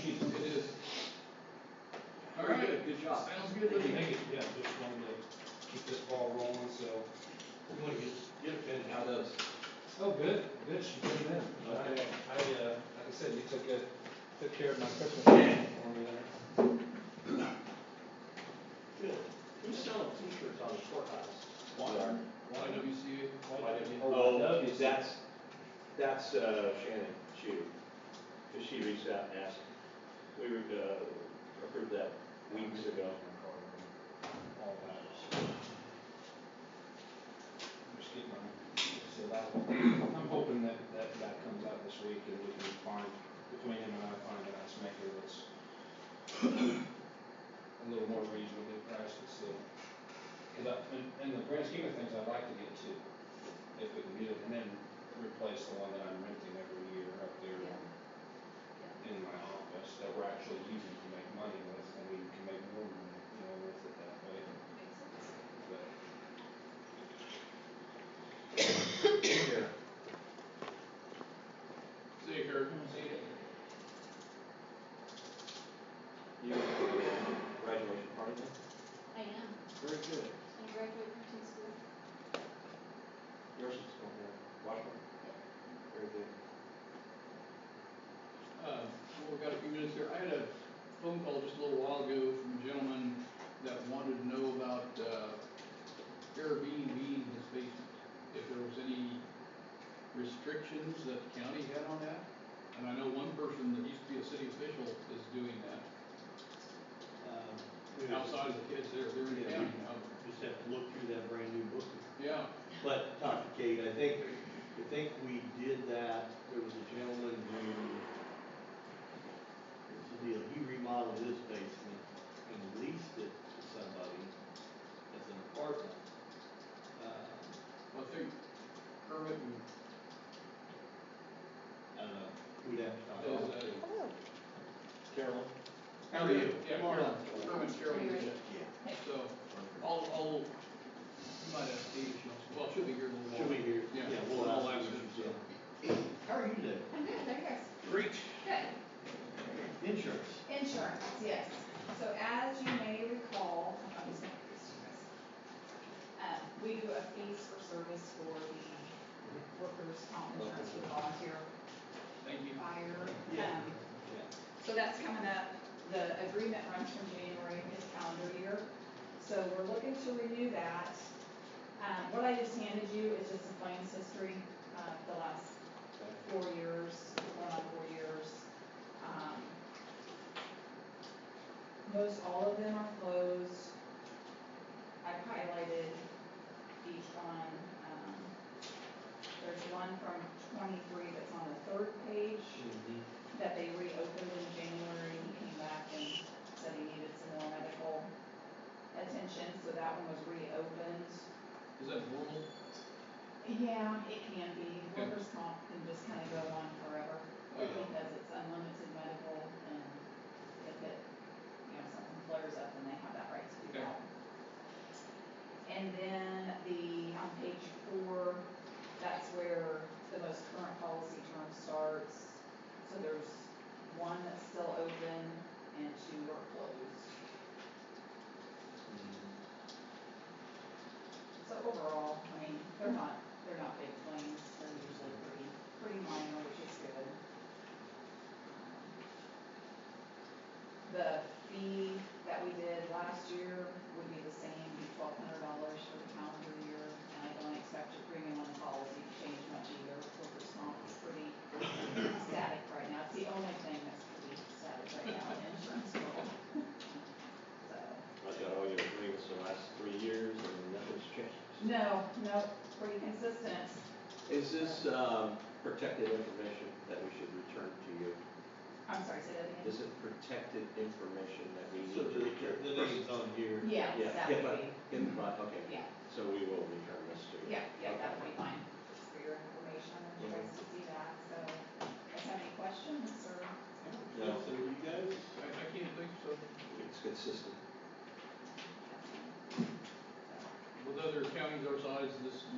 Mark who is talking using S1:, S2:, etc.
S1: Jesus, it is.
S2: All
S1: Very
S2: right.
S1: good, good job.
S2: Sounds good to me.
S1: Thank you, yeah, just wanted to keep this ball rolling, so we want to get, get it finished. How does?
S3: Oh, good, good, she did that. I,
S1: Okay.
S3: I, uh, like I said, you took good, took care of my Christmas Oh, for me there.
S1: Good. Who's selling t-shirts on the courthouse?
S2: YWCA.
S1: Why did you-
S4: Oh, that's, that's uh, Shannon Chu, because she reached out and asked, we were, uh, approved that weeks ago.
S1: All right.
S3: Just get my, so that, I'm hoping that, that, that comes out this week and we can find, between him and I, find a nice maker that's a little more reasonably priced and still. Cause I, in, in the grand scheme of things, I'd like to get two, if we can get it, and then replace the one that I'm renting every year up there
S5: Yeah.
S3: in my office that we're actually using to make money with, and we can make more money, you know, with it that way, but.
S1: Here.
S2: See you, Kirk. See you.
S4: You, went to the graduation party then?
S5: I am,
S2: Very good.
S5: I graduated from teen school.
S4: Yours is going there, Washburn? Very good.
S2: Uh, well, we've got a few minutes here. I had a phone call just a little while ago from a gentleman that wanted to know about, uh, Airbnb in his basement. If there was any restrictions that the county had on that? And I know one person that used to be a city official is doing that,
S1: Um,
S2: outside of the kids there, they're in the county now.
S1: Just have to look through that brand new book.
S2: Yeah,
S1: But, Dr. Kate, I think, I think we did that, there was a gentleman who, here's the deal, he remodeled his basement and leased it to somebody as an apartment. Uh,
S2: I think Kermit and
S1: I don't know, we'd have to talk
S2: Does,
S1: about
S2: uh,
S1: it.
S5: Oh.
S1: Carol?
S2: How are you? Yeah, Carol, Kermit, Carol, yeah.
S1: Yeah.
S2: So, I'll, I'll, you might have Steve, she'll- well, she'll be here in a little while.
S1: Should we hear?
S2: Yeah.
S1: we'll
S2: I'll
S1: ask
S2: ask
S1: her.
S2: her, so.
S1: How are you today?
S5: I'm good, there you guys.
S1: Great.
S6: Good.
S1: Insurance.
S6: Insurance, yes. So as you may recall, I'm just gonna read this to you guys. Uh, we do a fees for service for the workers' comp insurance, for volunteer
S2: Thank you.
S6: fire.
S1: Yeah.
S6: Um, So that's coming up. The agreement runs from January of this calendar year. So we're looking to renew that. Um, what I just handed you is just a claims history, uh, the last four years, one on four years. Um, Most all of them are closed. I've highlighted each one. Um, There's one from twenty-three that's on the third page that they reopened in January. He came back and said he needed some more medical attention, so that one was reopened.
S2: Is that normal?
S6: Yeah, it can be. Workers' comp can just kind of go on forever
S2: Yeah.
S6: because it's unlimited medical and if it, you know, something flares up and they have that right to do
S2: Okay.
S6: that. And then the, on page four, that's where the most current policy term starts. So there's one that's still open and two are closed. So overall, I mean, they're not, they're not big claims, they're usually pretty, pretty minor, which is good. The fee that we did last year would be the same, be twelve hundred dollars for the calendar year, and I don't expect your premium on the policy to change much either, workers' comp is pretty static right now, it's the only thing that's pretty static right now in the insurance world. So.
S4: I've got all your agreements the last three years and nothing's changed.
S6: No, no, pretty consistent.
S4: Is this, um, protected information that we should return to you?
S6: I'm sorry, say that again.
S4: Is it protected information that we
S1: So
S4: need to
S1: the,
S4: return?
S1: the name's on here.
S6: Yeah,
S4: Yeah,
S6: that
S4: HIPAA,
S6: would be,
S4: HIPAA, okay.
S6: yeah,
S4: So we will return this to you.
S6: yeah, yeah, that would be fine. Just for your information, I want you guys to see that, so, if you have any questions or?
S4: No.
S1: So you guys,
S2: I, I can't think so.
S4: It's consistent.
S2: With other counties our size, this